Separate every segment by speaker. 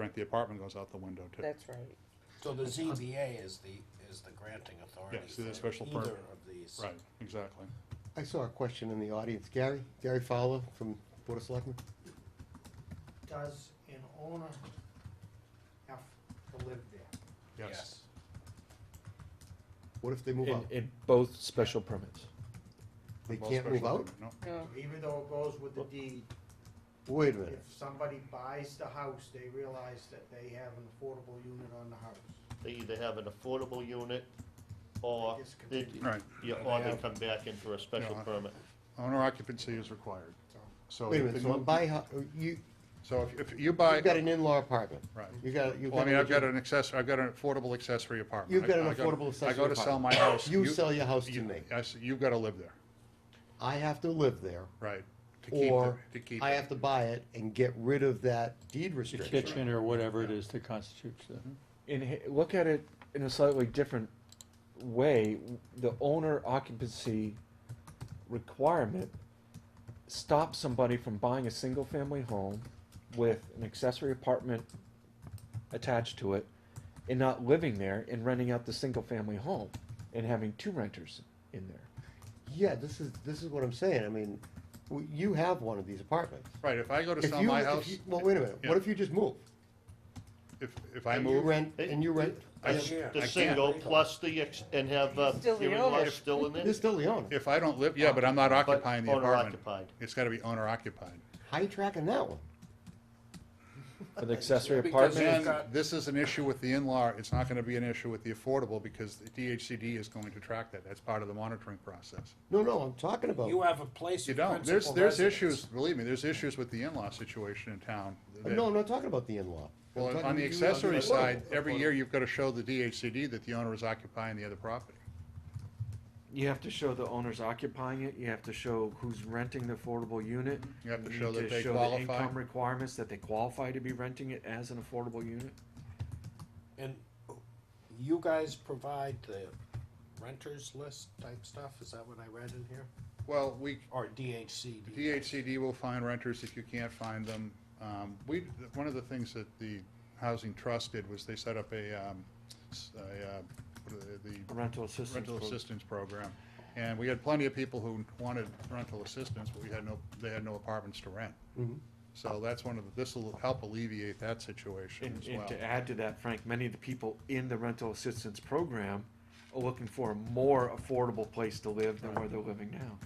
Speaker 1: rent the apartment goes out the window too.
Speaker 2: That's right.
Speaker 3: So the ZBA is the, is the granting authority
Speaker 1: Yes, it is
Speaker 3: for
Speaker 1: special
Speaker 3: either
Speaker 1: permit.
Speaker 3: of these.
Speaker 1: Right, exactly.
Speaker 4: I saw a question in the audience. Gary, Gary Fowler from Board of Selectmen.
Speaker 5: Does an owner have to live there?
Speaker 1: Yes.
Speaker 4: What if they move
Speaker 6: In,
Speaker 4: out?
Speaker 6: in both special permits.
Speaker 4: They
Speaker 1: Both
Speaker 4: can't move
Speaker 1: special
Speaker 4: out?
Speaker 1: permit, No,
Speaker 2: No,
Speaker 5: Even though it goes with the deed,
Speaker 4: Wait a
Speaker 5: if
Speaker 4: minute.
Speaker 5: somebody buys the house, they realize that they have an affordable unit on the house.
Speaker 7: They either have an affordable unit or
Speaker 5: It's
Speaker 7: they,
Speaker 5: continued.
Speaker 1: right.
Speaker 7: yeah, or they come back in for a special
Speaker 1: Yeah.
Speaker 7: permit.
Speaker 1: Owner occupancy is required. So.
Speaker 4: Wait
Speaker 1: if
Speaker 4: a minute,
Speaker 1: they
Speaker 4: so
Speaker 1: move-
Speaker 4: buy, ho- you,
Speaker 1: So if, if you
Speaker 4: you've
Speaker 1: buy,
Speaker 4: got an in-law apartment.
Speaker 1: right.
Speaker 4: You got, you've
Speaker 1: Well, I
Speaker 4: got.
Speaker 1: mean, I've
Speaker 4: a-
Speaker 1: got an access, I've got an affordable accessory apartment.
Speaker 4: You've got
Speaker 1: I-
Speaker 4: an
Speaker 1: I go-
Speaker 4: affordable
Speaker 1: I go to
Speaker 4: accessory
Speaker 1: sell my
Speaker 4: apartment.
Speaker 1: house.
Speaker 4: You sell your house to
Speaker 1: you-
Speaker 4: me.
Speaker 1: I s- you've got to live there,
Speaker 4: I have to live there,
Speaker 1: right? to keep
Speaker 4: or
Speaker 1: it- To keep
Speaker 4: I
Speaker 1: it.
Speaker 4: have to buy it and get rid of that deed
Speaker 8: The
Speaker 4: restriction.
Speaker 8: kitchen or whatever it is that constitutes the.
Speaker 6: In, h- look at it in a slightly different way. The owner occupancy requirement stops somebody from buying a single family home with an accessory apartment attached to it and not living there and renting out the single family home and having two renters in there.
Speaker 4: Yeah, this is, this is what I'm saying. I mean, w- you have one of these apartments.
Speaker 1: Right, if I go to
Speaker 4: If
Speaker 1: sell
Speaker 4: you-
Speaker 1: my
Speaker 4: if
Speaker 1: house,
Speaker 4: you- Well, wait a minute.
Speaker 1: Yeah.
Speaker 4: What if you just move?
Speaker 1: if, if I
Speaker 4: And
Speaker 1: move.
Speaker 4: You rent,
Speaker 7: Hey,
Speaker 4: and you rent,
Speaker 1: I-
Speaker 3: This year.
Speaker 1: I
Speaker 7: The
Speaker 1: can't.
Speaker 7: single plus the, ex- and have, uh,
Speaker 2: Still the
Speaker 7: hearing
Speaker 2: owner.
Speaker 7: loss still in
Speaker 4: you're
Speaker 7: it,
Speaker 4: still the owner.
Speaker 1: If I don't live, yeah, but I'm not
Speaker 7: but
Speaker 1: occupying the
Speaker 7: owner
Speaker 1: apartment.
Speaker 7: occupied.
Speaker 1: It's gotta be owner occupied.
Speaker 4: How you tracking that one?
Speaker 6: An accessory
Speaker 3: Because
Speaker 6: apartment
Speaker 1: Then,
Speaker 3: you've got-
Speaker 1: this is an issue with the in-law, it's not gonna be an issue with the affordable, because the DHCD is going to track that, that's part of the monitoring process.
Speaker 4: No, no, I'm talking about.
Speaker 3: You have a place
Speaker 1: You
Speaker 3: of
Speaker 1: don't, there's,
Speaker 3: principal
Speaker 1: there's
Speaker 3: residence.
Speaker 1: issues, believe me, there's issues with the in-law situation in town. that-
Speaker 4: No, I'm not talking about the in-law. I'm
Speaker 1: Well,
Speaker 4: talking
Speaker 1: on the
Speaker 4: you-
Speaker 1: accessory
Speaker 4: Well,
Speaker 1: side, every year you've gotta show the DHCD that the owner is occupying the other property.
Speaker 6: You have to show the owner's occupying it, you have to show who's renting the affordable unit.
Speaker 1: You have to
Speaker 6: need
Speaker 1: show that they
Speaker 6: show the
Speaker 1: qualify.
Speaker 6: Income requirements that they qualify to be renting it as an affordable unit.
Speaker 3: And you guys provide the renters list type stuff, is that what I read in here?
Speaker 1: Well, we,
Speaker 3: Or DHCD?
Speaker 1: DHCD will find renters if you can't find them. Um, we, one of the things that the Housing Trust did was they set up a, um, s- a, uh, what are they- the
Speaker 6: Rental assistance.
Speaker 1: rental
Speaker 6: program.
Speaker 1: assistance program. And we had plenty of people who wanted rental assistance, but we had no, they had no apartments to rent. So that's one of the, this'll help alleviate that situation
Speaker 6: And,
Speaker 1: as
Speaker 6: and
Speaker 1: well.
Speaker 6: to add to that, Frank, many of the people in the rental assistance program are looking for a more affordable place to live than where they're living now.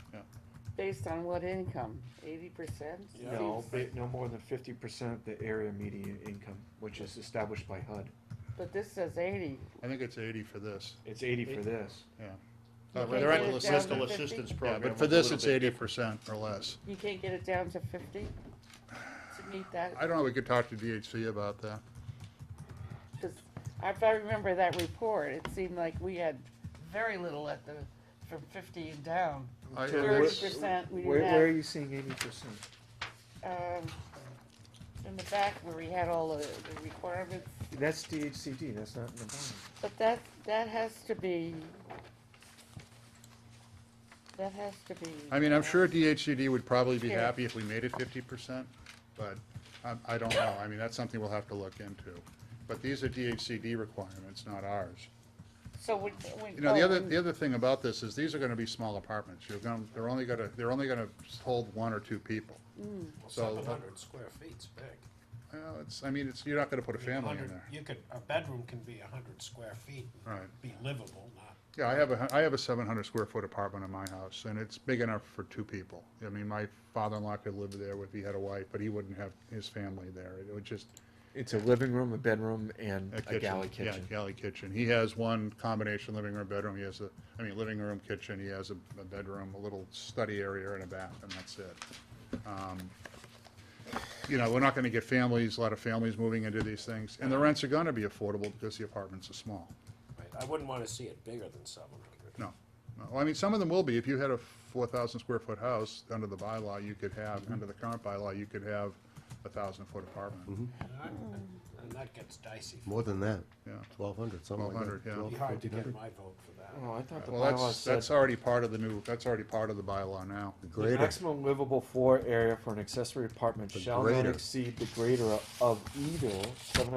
Speaker 2: based on what income? Eighty percent?
Speaker 6: No, ba- no more than fifty percent of the area median income, which is established by HUD.
Speaker 2: But this says eighty.
Speaker 1: I think it's eighty for this,
Speaker 6: It's eighty for this.
Speaker 1: yeah.
Speaker 2: You
Speaker 1: Uh,
Speaker 2: can't
Speaker 1: for The
Speaker 2: get
Speaker 1: rental
Speaker 2: it down to
Speaker 1: assistance,
Speaker 7: Rental
Speaker 2: 50?
Speaker 7: assistance
Speaker 1: yeah,
Speaker 7: program.
Speaker 1: but
Speaker 7: was
Speaker 1: for
Speaker 7: a
Speaker 1: this,
Speaker 7: little
Speaker 1: it's
Speaker 7: bit
Speaker 1: eighty percent or less.
Speaker 2: You can't get it down to fifty? To meet that?
Speaker 1: I don't know, we could talk to DHC about that.
Speaker 2: 'Cause if I remember that report, it seemed like we had very little at the, from fifty and down.
Speaker 1: I-
Speaker 6: So
Speaker 1: it's-
Speaker 6: where-
Speaker 2: Thirty percent, we
Speaker 6: Where, where are
Speaker 2: didn't
Speaker 6: you seeing eighty percent?
Speaker 2: have, um, in the back where we had all the the requirements.
Speaker 6: That's DHCD, that's not in the bottom.
Speaker 2: But that, that has to be, that has to be.
Speaker 1: I mean, I'm sure DHCD would probably be
Speaker 2: Yeah.
Speaker 1: happy if we made it fifty percent, but I, I don't know. I mean, that's something we'll have to look into. But these are DHCD requirements, not ours.
Speaker 2: So when, when.
Speaker 1: You know, the
Speaker 2: oh,
Speaker 1: other,
Speaker 2: when-
Speaker 1: the other thing about this is these are gonna be small apartments. You're gonna, they're only gonna, they're only gonna hold one or two people. So,
Speaker 3: Seven hundred square feet's big.
Speaker 1: well, it's, I mean, it's, you're not gonna put a family in
Speaker 3: 100
Speaker 1: there.
Speaker 3: You could, a bedroom can be a hundred square feet. and
Speaker 1: Right.
Speaker 3: Be livable, not,
Speaker 1: Yeah, I have a, hu- I have a seven hundred square foot apartment in my house, and it's big enough for two people. I mean, my father-in-law could live there if he had a wife, but he wouldn't have his family there. It would just,
Speaker 6: It's a living room, a bedroom, and
Speaker 1: A
Speaker 6: a
Speaker 1: kitchen,
Speaker 6: galley
Speaker 1: yeah,
Speaker 6: kitchen.
Speaker 1: galley kitchen. He has one combination living room, bedroom, he has a, I mean, living room, kitchen, he has a, a bedroom, a little study area and a bath, and that's it. Um, You know, we're not gonna get families, a lot of families moving into these things, and the rents are gonna be affordable because the apartments are small.
Speaker 3: right, I wouldn't wanna see it bigger than seven hundred.
Speaker 1: No, no, Well, I mean, some of them will be, if you had a four thousand square foot house, under the bylaw,
Speaker 6: Mm-hmm. Mm-hmm.
Speaker 1: you could have, under the current bylaw, you could have a thousand foot apartment.
Speaker 3: And I- and I that gets dicey.
Speaker 4: more than that,
Speaker 1: yeah.
Speaker 4: twelve hundred, something like
Speaker 1: 1,200,
Speaker 4: that.
Speaker 1: yeah.
Speaker 3: It'd be hard to get my vote for that.
Speaker 6: Oh, I thought the
Speaker 1: Well,
Speaker 6: bylaw
Speaker 1: that's,
Speaker 6: said
Speaker 1: that's already part of the new, that's already part of the bylaw now.
Speaker 6: the
Speaker 4: Greater,
Speaker 6: maximum livable floor area for an accessory apartment
Speaker 4: The
Speaker 6: shall not
Speaker 4: greater.
Speaker 6: exceed the greater of either seven